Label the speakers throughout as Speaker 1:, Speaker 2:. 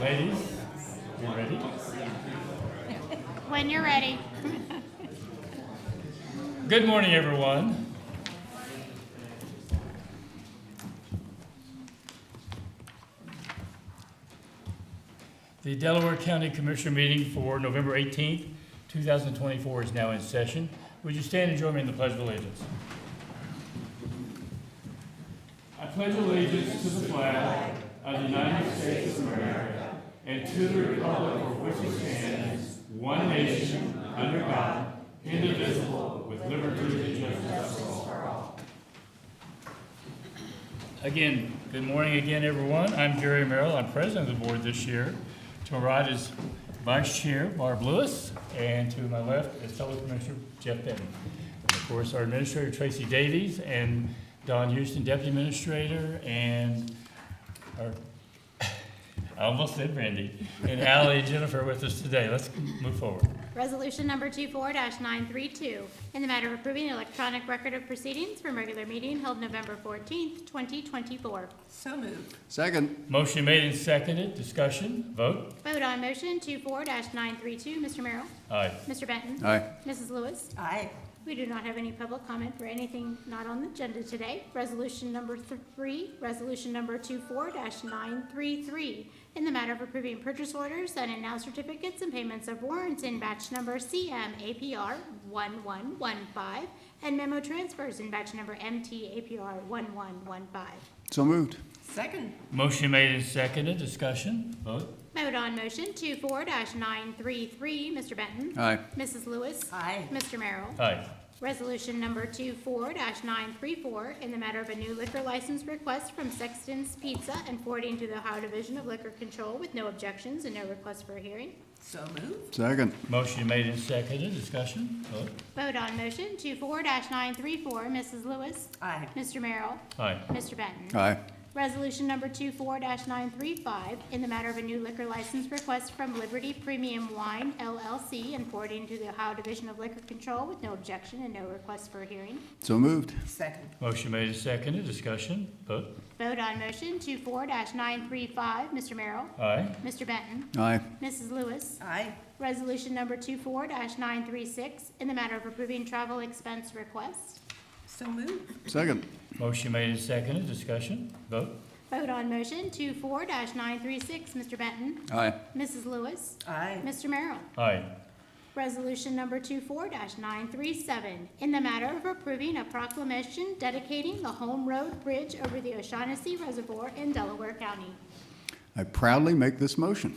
Speaker 1: Ladies, you ready?
Speaker 2: When you're ready.
Speaker 1: Good morning, everyone. The Delaware County Commissioner meeting for November 18th, 2024 is now in session. Would you stand and join me in the Pledge of Allegiance? I pledge allegiance to the flag of the United States of America and to the republic for which it stands, one nation, under God, indivisible, with liberty and justice for all. Again, good morning again, everyone. I'm Gary Merrill. I'm president of the board this year. To my right is Vice Chair Barb Lewis, and to my left is fellow Commissioner Jeff Benton. Of course, our Administrator Tracy Davies and Don Houston, Deputy Administrator, and our, I almost said Randy, and Ally and Jennifer with us today. Let's move forward.
Speaker 2: Resolution number 24-932, in the matter of approving the electronic record of proceedings from regular meeting held November 14th, 2024.
Speaker 3: So moved.
Speaker 4: Second,
Speaker 1: Motion made and seconded. Discussion, vote.
Speaker 2: Vote on motion 24-932, Mr. Merrill,
Speaker 1: Aye.
Speaker 2: Mr. Benton.
Speaker 4: aye.
Speaker 2: Mrs. Lewis.
Speaker 3: Aye.
Speaker 2: We do not have any public comment for anything not on the agenda today. Resolution number three, resolution number 24-933, in the matter of approving purchase orders and announced certificates and payments of warrants in batch number CM APR 1115 and memo transfers in batch number MT APR 1115.
Speaker 4: So moved.
Speaker 3: Second.
Speaker 1: Motion made and seconded. Discussion, vote.
Speaker 2: Vote on motion 24-933, Mr. Benton.
Speaker 4: Aye.
Speaker 2: Mrs. Lewis.
Speaker 3: Aye.
Speaker 2: Mr. Merrill.
Speaker 1: Aye.
Speaker 2: Resolution number 24-934, in the matter of a new liquor license request from Sexton's Pizza and forwarding to the Ohio Division of Liquor Control with no objections and no request for a hearing.
Speaker 3: So moved.
Speaker 4: Second,
Speaker 1: Motion made and seconded. Discussion, vote.
Speaker 2: Vote on motion 24-934, Mrs. Lewis.
Speaker 3: Aye.
Speaker 2: Mr. Merrill.
Speaker 1: Aye.
Speaker 2: Mr. Benton.
Speaker 4: aye.
Speaker 2: Resolution number 24-935, in the matter of a new liquor license request from Liberty Premium Wine LLC and forwarding to the Ohio Division of Liquor Control with no objection and no request for a hearing.
Speaker 4: So moved.
Speaker 3: Second.
Speaker 1: Motion made and seconded. Discussion, vote.
Speaker 2: Vote on motion 24 nine three five, Mr. Merrill,
Speaker 1: Aye.
Speaker 2: Mr. Benton,
Speaker 4: Aye.
Speaker 2: Mrs. Lewis.
Speaker 3: Aye.
Speaker 2: Resolution number 24 nine three six, in the matter of approving travel expense request.
Speaker 3: So moved.
Speaker 4: Second,
Speaker 1: Motion made and seconded. Discussion, vote.
Speaker 2: Vote on motion 24 nine three six, Mr. Benton,
Speaker 4: aye.
Speaker 2: Mrs. Lewis,
Speaker 3: Aye.
Speaker 2: Mr. Merrill.
Speaker 1: Aye.
Speaker 2: Resolution number 24 nine three seven, in the matter of approving a proclamation dedicating the Home Road Bridge over the O'Shaughnessy Reservoir in Delaware County.
Speaker 4: I proudly make this motion.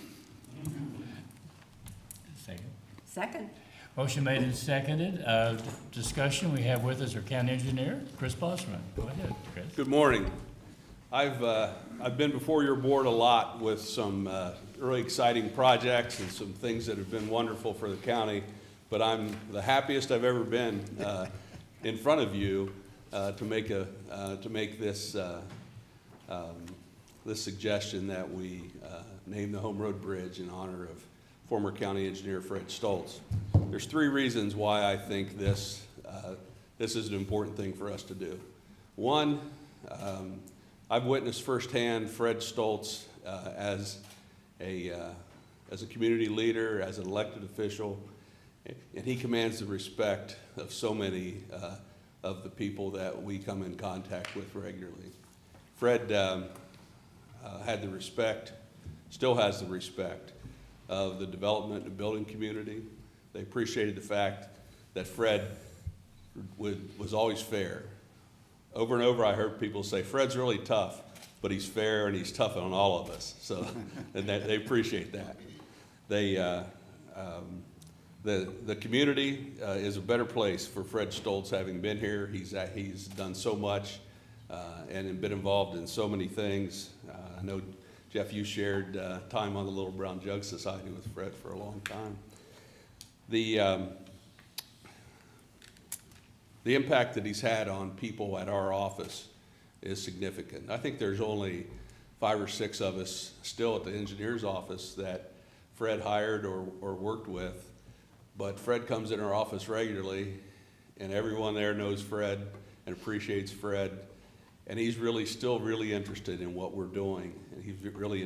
Speaker 1: Second.
Speaker 3: Second.
Speaker 1: Motion made and seconded. Uh, Discussion, we have with us our county engineer, Chris Bosman. Go ahead, Chris.
Speaker 5: Good morning. I've, uh, I've been before your board a lot with some, uh, really exciting projects and some things that have been wonderful for the county, but I'm the happiest I've ever been, uh, in front of you, uh, to make a, uh, to make this, uh, um, this suggestion that we, uh, name the Home Road Bridge in honor of former county engineer Fred Stoltz. There's three reasons why I think this, uh, this is an important thing for us to do. One, um, I've witnessed firsthand Fred Stoltz uh, as a, uh, as a community leader, as an elected official, and he commands the respect of so many uh, of the people that we come in contact with regularly. Fred um, uh, had the respect, still has the respect of the development and building community. They appreciated the fact that Fred would, was always fair. Over and over, I heard people say, Fred's really tough, but he's fair and he's tough on all of us. So, and that, they appreciate that. They, uh, um, the, the community, uh, is a better place for Fred Stoltz having been here. He's, a- he's done so much, uh, and been involved in so many things. Uh, I know, Jeff, you shared, uh, time on the Little Brown Jug Society with Fred for a long time. The, um, the impact that he's had on people at our office is significant. I think there's only five or six of us still at the engineer's office that Fred hired or, or worked with. But Fred comes in our office regularly, and everyone there knows Fred and appreciates Fred. And he's really, still really interested in what we're doing, and he's really